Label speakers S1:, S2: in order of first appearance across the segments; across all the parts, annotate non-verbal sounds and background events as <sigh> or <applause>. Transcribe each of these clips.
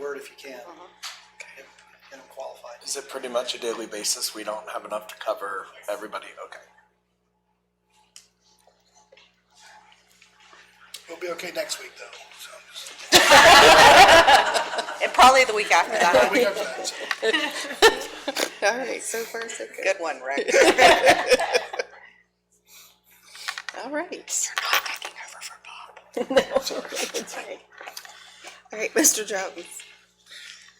S1: word if you can.
S2: Mhm.
S1: Get get them qualified.
S3: Is it pretty much a daily basis? We don't have enough to cover everybody. Okay.
S1: We'll be okay next week though, so just
S2: And probably the week after
S1: a
S2: that.
S1: week after that. so.
S4: All right, so far, so good.
S2: Good one, <laughs> Rick.
S4: All right. <laughs> That's right. All right, Mr. Jones.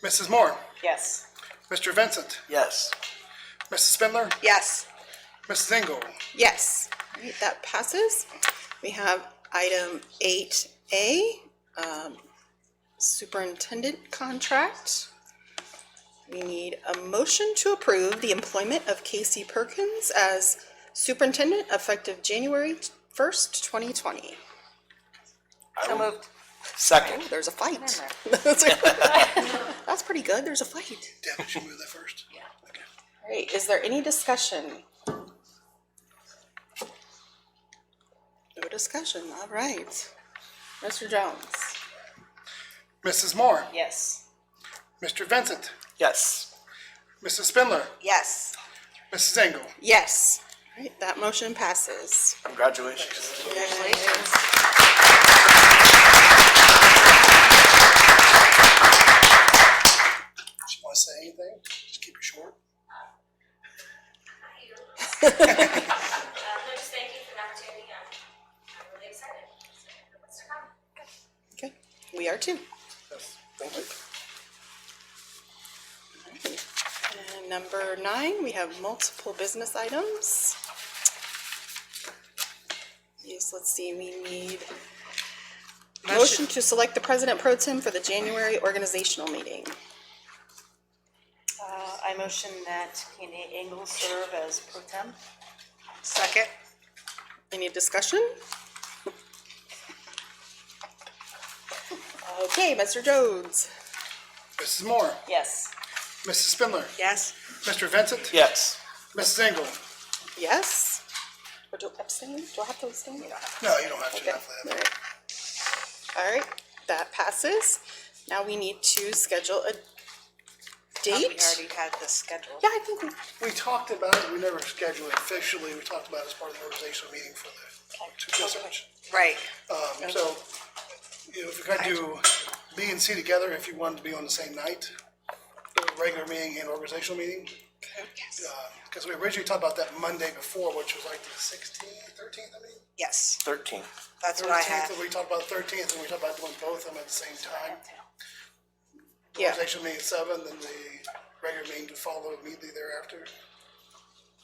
S1: Mrs. Moore,
S2: Yes.
S1: Mr. Vincent,
S3: Yes.
S1: Mrs. Spindler,
S2: Yes.
S1: Mrs. Engel.
S4: Yes, All right, that passes. We have item eight A, um, superintendent contract. We need a motion to approve the employment of Casey Perkins as superintendent effective January first, twenty twenty.
S2: So moved.
S3: Second.
S4: There's a fight. <laughs> That's pretty good, there's a fight.
S1: Deb, did you move that first? Yeah.
S4: All right, is there any discussion? No discussion, all right. Mr. Jones?
S1: Mrs. Moore,
S2: Yes.
S1: Mr. Vincent,
S3: Yes.
S1: Mrs. Spindler,
S2: Yes.
S1: Mrs. Engel.
S4: Yes. All right, that motion passes.
S3: Congratulations.
S1: Do you want to say anything? Just keep it short.
S5: Uh, no, just thank you for the opportunity. I'm, I'm really excited. for What's to come?
S4: Okay, we are too.
S1: Thank you.
S4: And number nine, we have multiple business items. Yes, let's see, we need motion to select the president pro tem for the January organizational meeting.
S6: Uh, I motion that Kenny Engel serve as pro tem.
S2: Second.
S4: Any discussion? Okay, Mr. Jones.
S1: Mrs. Moore,
S6: Yes.
S1: Mrs. Spindler,
S2: Yes.
S1: Mr. Vincent,
S3: Yes.
S1: Mrs. Engel.
S4: Yes? Or do abstain? Do I have to abstain? You don't have to.
S1: No, you don't have to. not for
S4: All
S1: that.
S4: right. All right, that passes. Now we need to schedule a
S2: We
S4: date.
S2: already had the schedule.
S4: Yeah, I think we,
S1: We talked about it, we never scheduled it officially, we talked about it as part of the organizational meeting for the two sessions.
S2: Right.
S1: Um, so, you know, if you're gonna do B and C together, if you wanted to be on the same night, the regular meeting and organizational meeting. Because we originally talked about that Monday before, which was like the sixteenth, thirteenth, I mean.
S2: Yes.
S3: Thirteen.
S2: That's what I have.
S1: Thirteenth, and we talked about the thirteenth, and we talked about doing both of them at the same time.
S4: yeah,
S1: Organizational meeting at seven, then the regular meeting to follow immediately thereafter.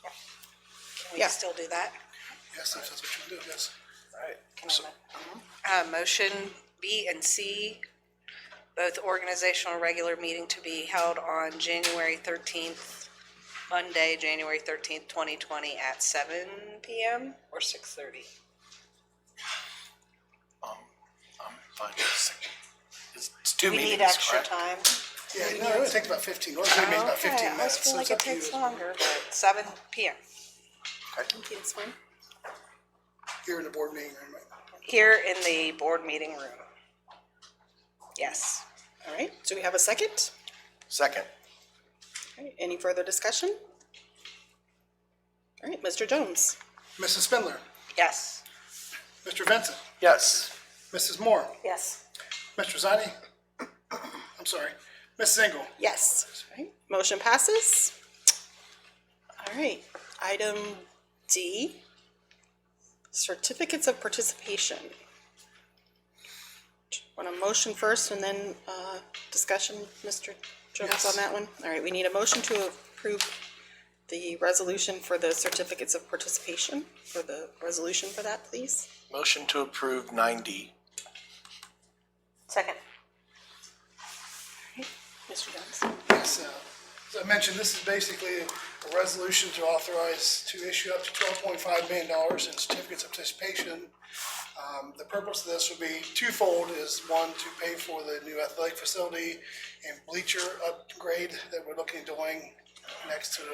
S2: Can we
S4: Yeah.
S2: still do that?
S1: Yes, if that's what you wanna do, yes.
S2: Uh, motion B and C, both organizational and regular meeting to be held on January thirteenth, Monday, January thirteenth, twenty twenty at seven PM or six thirty?
S3: I'm fine. with second. It's Um, it's two
S6: We
S3: meetings,
S6: need extra
S3: correct?
S6: time.
S1: Yeah, no, it takes about fifteen, organizational meeting's about
S2: Okay,
S1: fifteen
S2: I always
S1: minutes,
S2: feel
S1: so it's
S2: like it
S1: up to you.
S2: takes longer, but seven PM.
S4: okay, that's fine.
S1: Here in the board meeting room, right?
S2: Here in the board meeting room. Yes.
S4: All right, do we have a second?
S3: Second.
S4: All right, Any further discussion? All right, Mr. Jones?
S1: Mrs. Spindler,
S2: Yes.
S1: Mr. Vincent,
S3: Yes.
S1: Mrs. Moore,
S6: Yes.
S1: Mr. Zani, <coughs> I'm sorry, Mrs. Engel,
S4: Yes. All right, Motion passes. All right, item D, certificates of participation. Want a motion first and then, uh, discussion, Mr. Jones on that one? All right, we need a motion to approve the resolution for the certificates of participation, for the resolution for that, please.
S3: Motion to approve nine D.
S6: Second.
S4: Mr. Jones?
S1: Yes, uh, As I mentioned, this is basically a resolution to authorize to issue up to twelve point five million dollars in certificates of participation. Um, The purpose of this would be twofold, is one, to pay for the new athletic facility and bleacher upgrade that we're looking at doing next to the